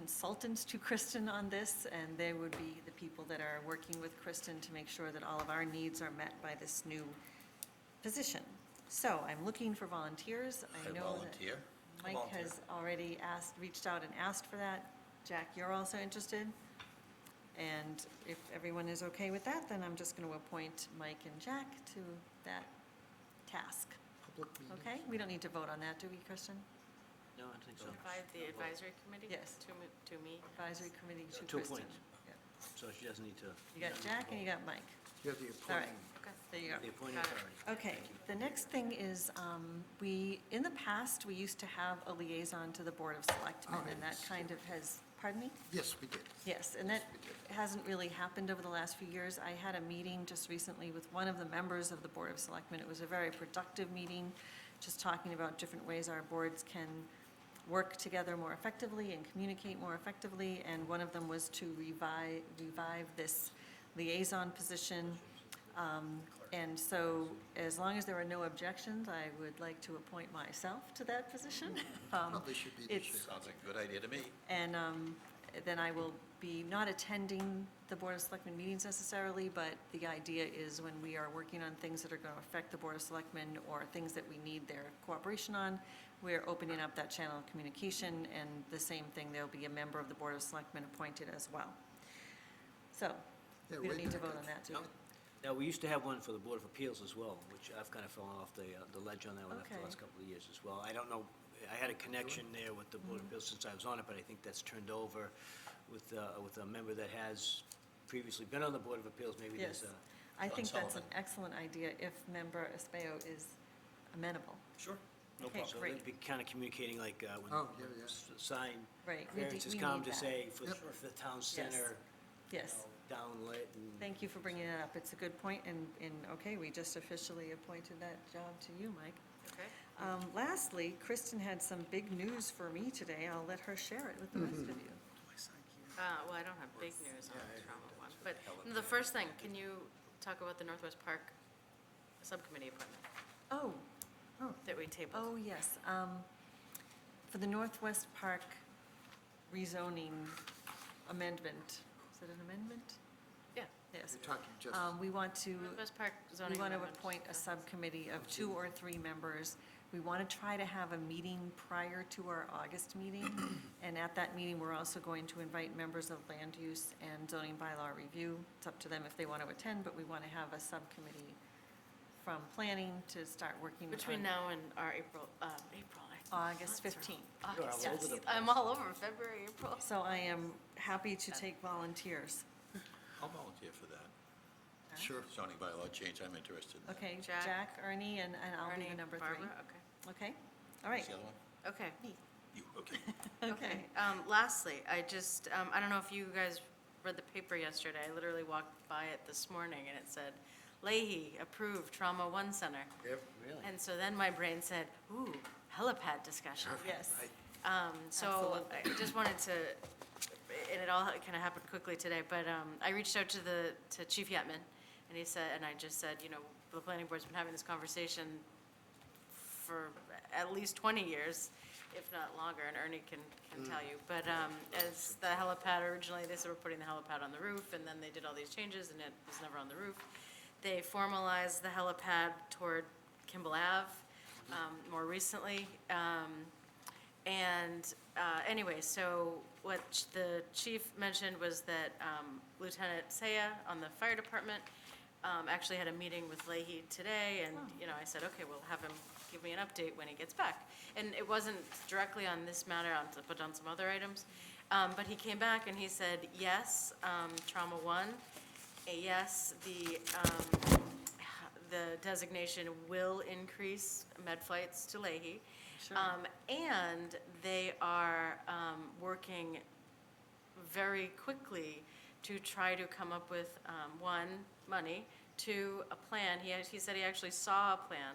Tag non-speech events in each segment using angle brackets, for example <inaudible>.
consultants to Kristen on this, and they would be the people that are working with Kristen to make sure that all of our needs are met by this new position. So I'm looking for volunteers. I I know that volunteer. Mike has already asked, reached out and asked for that. Jack, you're also interested? And if everyone is okay with that, then I'm just going to appoint Mike and Jack to that task. Okay? We don't need to vote on that, do we, Kristen? No, I don't think so. Invite the advisory committee? Yes. To me, to me? Advisory committee to Two Kristen. appoints. So she doesn't need to. You got Jack and you got Mike. You have the All right, appointing. Okay. there you go. The appointing Got it. authority. Okay, the next thing is, um, we, in the past, we used to have a liaison to the Board of Selectmen, and that Alright. kind of has, pardon me? Yes, we did. Yes, and that Okay. hasn't really happened over the last few years. I had a meeting just recently with one of the members of the Board of Selectmen. It was a very productive meeting, just talking about different ways our boards can work together more effectively and communicate more effectively. And one of them was to revive, revive this liaison position. Um, And so as long as there are no objections, I would like to appoint myself to that position. Um, Mm-hmm. Probably should be this it's- year. Sounds like a good idea to me. and um, then I will be not attending the Board of Selectmen meetings necessarily, but the idea is when we are working on things that are going to affect the Board of Selectmen or things that we need their cooperation on, we're opening up that channel of communication, and the same thing, there'll be a member of the Board of Selectmen appointed as well. So, Yeah, we don't way need to back vote on up. that, do we? Now, we used to have one for the Board of Appeals as well, which I've kind of fallen off the, uh, the ledge on that one after the Okay. last couple of years as well. I don't know, I had a connection there with the Mm-hmm. Board of Appeals since I was on it, but I think that's turned over with, uh, with a member that has previously been on the Board of Appeals, maybe there's Yes. a. I John think that's an Sullivan. excellent idea if member Españo is amenable. Sure. no Okay, problem. So great. they'd be kind of communicating like, uh, when. Oh, yeah, yeah. s- Sign Right, we variances de- we come need to that. say for the Yep. for the town center, you Yes. know, downlit and. Thank you for bringing that up. It's a good point, and, and, okay, we just officially appointed that job to you, Mike. Okay. Um, Lastly, Kristen had some big news for me today. I'll let her share it with the rest of you. Uh, well, I don't have big news on the trauma one, but the first thing, can you talk about the Northwest Park Subcommittee appointment Oh, that we tabled? oh, yes. um, For the Northwest Park rezoning amendment, is it an amendment? Yeah, Yes. You're talking just, Um, We want to. Northwest Park zoning. We want to amendment. appoint a subcommittee of two or three members. We want to try to have a meeting prior to our August meeting. <clears throat> And at that meeting, we're also going to invite members of land use and zoning bylaw review. It's up to them if they want to attend, but we want to have a subcommittee from planning to start working Between on now and our April, um, April. I- August months are- 15th. You're all August over the 15th. I'm all over February, April. So I am happy to take volunteers. I'll volunteer for that. sure. Zoning bylaw change, I'm interested in that. Okay, Jack. Jack, Ernie, and and I'll be Ernie, the number three. Barbara, okay. Okay, all right. Who's the other one? Okay. You, okay. <laughs> Okay, um, lastly, I just, um, I don't know if you guys read the paper yesterday, I literally walked by it this morning and it said, Leahy approved trauma one center. Yep. Really? And so then my brain said, ooh, helipad discussion. Yes. Right. Um, so I just wanted to, and it all kind of happened quickly today, but, um, I reached out to the, to Chief Yetman and he said, and I just said, you know, the planning board's been having this conversation for at least 20 years, if not longer, and Ernie can, can tell you. But um, as the helipad, originally, they said we're putting the helipad on the roof, and then they did all these changes, and it was never on the roof. They formalized the helipad toward Kimball Ave um, more recently. Um, and uh, anyway, so what ch- the chief mentioned was that um, Lieutenant Saya on the fire department um, actually had a meeting with Leahy today, and, you know, I said, okay, we'll have him give me an update when he gets back. And it wasn't directly on this matter, on- but on some other items. Um, But he came back and he said, yes, um, trauma one, eh, yes, the, um, the designation will increase med flights to Leahy. Sure. Um, And they are um, working very quickly to try to come up with, um, one, money, two, a plan. He, act- he said he actually saw a plan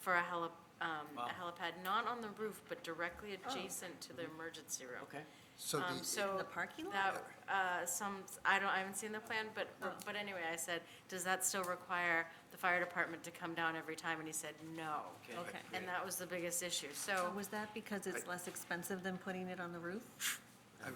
for a heli, um, a Wow. helipad, not on the roof, but directly adjacent to the emergency room. Okay. So Um, the, So the parking lot? that, uh, some, I don't, I haven't seen the plan, but, but anyway, I said, does that still require the fire department to come down every time? And he said, no. Okay. Okay. And that was the biggest issue, so. So was that because it's less expensive than putting it on the roof?